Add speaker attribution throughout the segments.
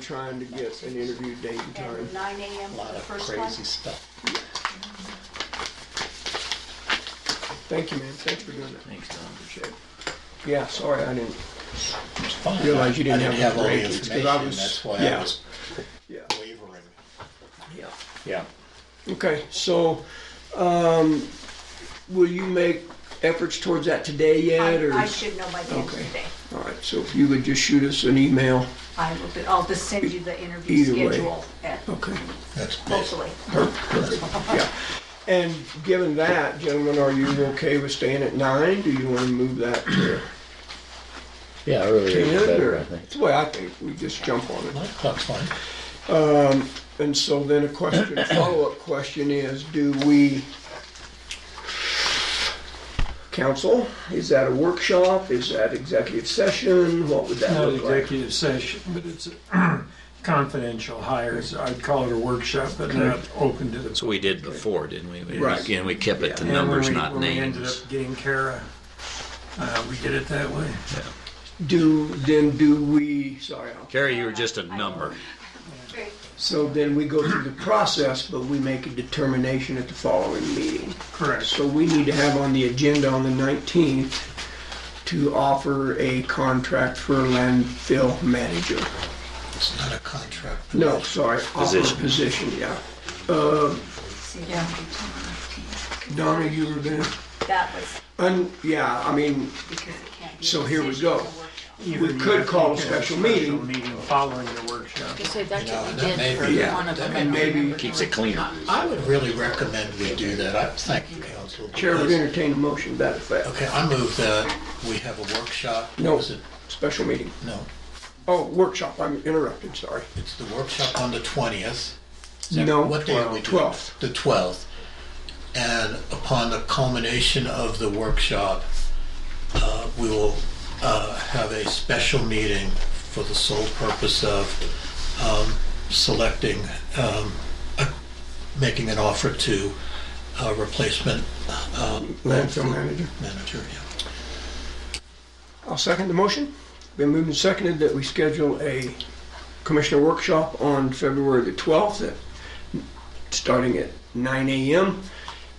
Speaker 1: trying to get an interview date and time.
Speaker 2: And nine AM
Speaker 3: A
Speaker 2: for
Speaker 3: lot
Speaker 2: the
Speaker 3: of
Speaker 2: first one.
Speaker 3: crazy stuff.
Speaker 1: Thank you, man. Thanks for doing that.
Speaker 3: Thanks, Don.
Speaker 1: Appreciate it. Yeah, sorry, I didn't.
Speaker 3: It's fine.
Speaker 1: Realize you didn't
Speaker 3: I didn't
Speaker 1: have
Speaker 3: have all
Speaker 1: the
Speaker 3: the
Speaker 1: rankings, 'cause I
Speaker 3: information,
Speaker 1: was-
Speaker 3: that's why
Speaker 1: yeah.
Speaker 3: I was
Speaker 1: Yeah.
Speaker 3: wavering.
Speaker 1: Yeah.
Speaker 3: Yeah.
Speaker 1: Okay, so, um, will you make efforts towards that today yet,
Speaker 2: I
Speaker 1: or?
Speaker 2: I should know by the end of
Speaker 1: Okay.
Speaker 2: the day.
Speaker 1: All right, so if you would just shoot us an email.
Speaker 2: I will, do- I'll just send you the interview
Speaker 1: Either way.
Speaker 2: schedule at,
Speaker 1: Okay.
Speaker 3: That's basically.
Speaker 2: hopefully.
Speaker 1: Yeah. And given that, gentlemen, are you okay with staying at nine? Do you want to move that to
Speaker 4: Yeah, earlier
Speaker 1: ten?
Speaker 4: is better,
Speaker 1: or-
Speaker 4: I think.
Speaker 1: It's the way I think. We just jump on it.
Speaker 3: My clock's fine.
Speaker 1: And so then a question, follow-up question is, do we, council, is that a workshop? Is that executive session? What would that
Speaker 5: Not
Speaker 1: look like?
Speaker 5: executive session, but it's confidential hires. I'd call it a workshop, but not open to the.
Speaker 6: So we did before, didn't we? We-
Speaker 1: Right.
Speaker 6: Again, we kept it to
Speaker 5: And when
Speaker 6: numbers,
Speaker 5: we-
Speaker 6: not
Speaker 5: When we ended
Speaker 6: names.
Speaker 5: up getting Kara, uh, we did it that way.
Speaker 1: Do, then do we, sorry, I'll-
Speaker 6: Carrie, you were just a number.
Speaker 1: so then we go through the process, but we make a determination at the following meeting.
Speaker 5: Correct.
Speaker 1: So we need to have on the agenda on the 19th to offer a contract for landfill manager.
Speaker 3: It's not a contract.
Speaker 1: No, sorry, offer a position, yeah.
Speaker 2: Yeah,
Speaker 1: Donna, you were there?
Speaker 2: that was
Speaker 1: Un, yeah, I mean,
Speaker 2: because it can't be.
Speaker 1: So
Speaker 2: a
Speaker 1: here we
Speaker 2: decision,
Speaker 1: go.
Speaker 2: it's a workshop.
Speaker 1: we could call a special meeting.
Speaker 5: Meeting following the workshop.
Speaker 7: You said that's
Speaker 3: You know,
Speaker 7: what we
Speaker 3: that may
Speaker 7: did
Speaker 3: be-
Speaker 7: for one of them.
Speaker 3: that may
Speaker 7: I don't
Speaker 1: be-
Speaker 7: remember
Speaker 6: Keeps
Speaker 7: the
Speaker 6: it clean.
Speaker 3: I would really recommend we do that. I thank you, council.
Speaker 1: Chair would
Speaker 3: because-
Speaker 1: entertain a motion to that effect.
Speaker 3: Okay, I move that we have a workshop.
Speaker 1: No,
Speaker 3: Is it-
Speaker 1: special meeting.
Speaker 3: No,
Speaker 1: Oh, workshop, I'm interrupted, sorry.
Speaker 3: it's the workshop on the twentieth.
Speaker 1: No,
Speaker 3: What day are we doing?
Speaker 1: 12th.
Speaker 3: The twelfth. And upon the culmination of the workshop, uh, we will, uh, have a special meeting for the sole purpose of, um, selecting, um, a- making an offer to, uh, replacement, um,
Speaker 1: Landfill manager.
Speaker 3: manager, yeah.
Speaker 1: I'll second the motion. Been moved and seconded that we schedule a commissioner workshop on February the 12th, at- starting at 9 a.m.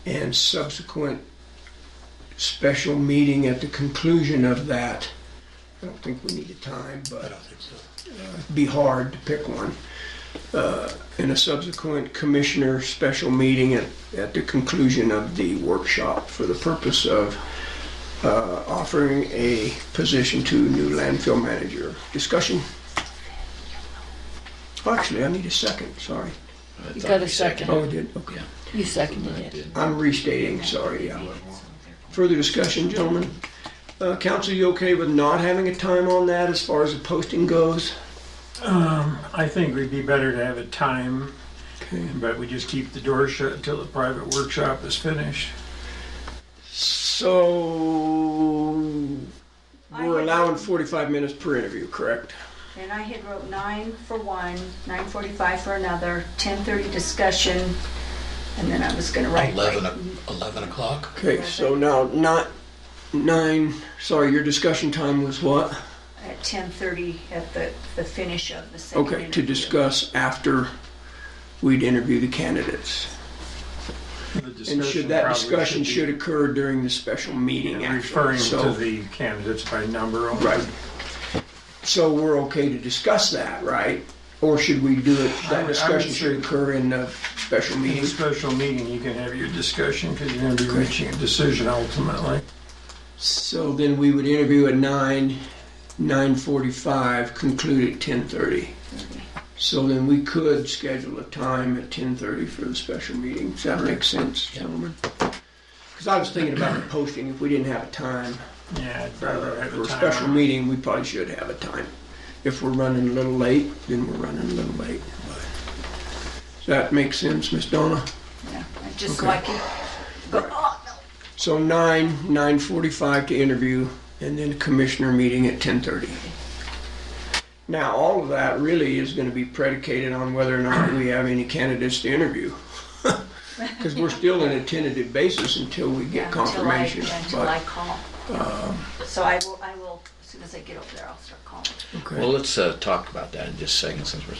Speaker 1: and subsequent special meeting at the conclusion of that. I don't think we need a time,
Speaker 3: I
Speaker 1: but
Speaker 3: don't think so.
Speaker 1: be hard to pick one. Uh, And a subsequent commissioner special meeting at, at the conclusion of the workshop for the purpose of uh, offering a position to new landfill manager. Discussion? Oh, Actually, I need a second, sorry.
Speaker 7: You got a second.
Speaker 1: Oh, I did, okay.
Speaker 7: You seconded it.
Speaker 1: I'm restating, sorry, yeah. Further discussion, gentlemen? Uh, Council, you okay with not having a time on that as far as the posting goes?
Speaker 5: I think we'd be better to have a time,
Speaker 1: Okay.
Speaker 5: but we just keep the door shut until the private workshop is finished.
Speaker 1: So
Speaker 2: I
Speaker 1: we're
Speaker 2: had-
Speaker 1: allowing 45 minutes per interview, correct?
Speaker 2: And I had wrote nine for one, nine forty-five for another, ten thirty discussion, and then I was gonna write.
Speaker 3: Eleven, o- eleven o'clock?
Speaker 1: Okay, so now not nine. Sorry, your discussion time was what?
Speaker 2: At ten thirty at the, the finish of the second
Speaker 1: Okay, to
Speaker 2: interview.
Speaker 1: discuss after we'd interview the candidates. And should that discussion should occur during the special meeting
Speaker 5: Yeah,
Speaker 1: actually.
Speaker 5: Referring to
Speaker 1: So-
Speaker 5: the candidates by number. only.
Speaker 1: Right. So we're okay to discuss that, right? Or should we do it,
Speaker 5: I would- I
Speaker 1: that
Speaker 5: would
Speaker 1: discussion
Speaker 5: say-
Speaker 1: should occur in the special
Speaker 5: In a
Speaker 1: meeting?
Speaker 5: special meeting, you can have your discussion because you're going to be reaching a decision ultimately.
Speaker 1: So then we would interview at nine, nine forty-five, conclude at ten thirty. So then we could schedule a time at ten thirty for the special meeting. Does that make sense, gentlemen? Because I was thinking about the posting, if we didn't have a time
Speaker 5: Yeah, I'd rather
Speaker 1: uh,
Speaker 5: have
Speaker 1: for
Speaker 5: a
Speaker 1: a special
Speaker 5: time.
Speaker 1: meeting, we probably should have a time. If we're running a little late, then we're running a little late. Does that make sense, Miss Donna?
Speaker 2: Yeah, Just so I can go,
Speaker 1: Right.
Speaker 2: oh, no.
Speaker 1: So nine, nine forty-five to interview, and then commissioner meeting at ten thirty. Now, all of that really is gonna be predicated on whether or not we have any candidates to interview. Cause we're still in a tentative basis until we
Speaker 2: Yeah,
Speaker 1: get
Speaker 2: until I,
Speaker 1: confirmation.
Speaker 2: yeah, until I
Speaker 1: But, um,
Speaker 2: call. So I will, I will, as soon as I get over there, I'll start calling.
Speaker 1: okay.
Speaker 6: Well, let's uh, talk about that in just a second since we're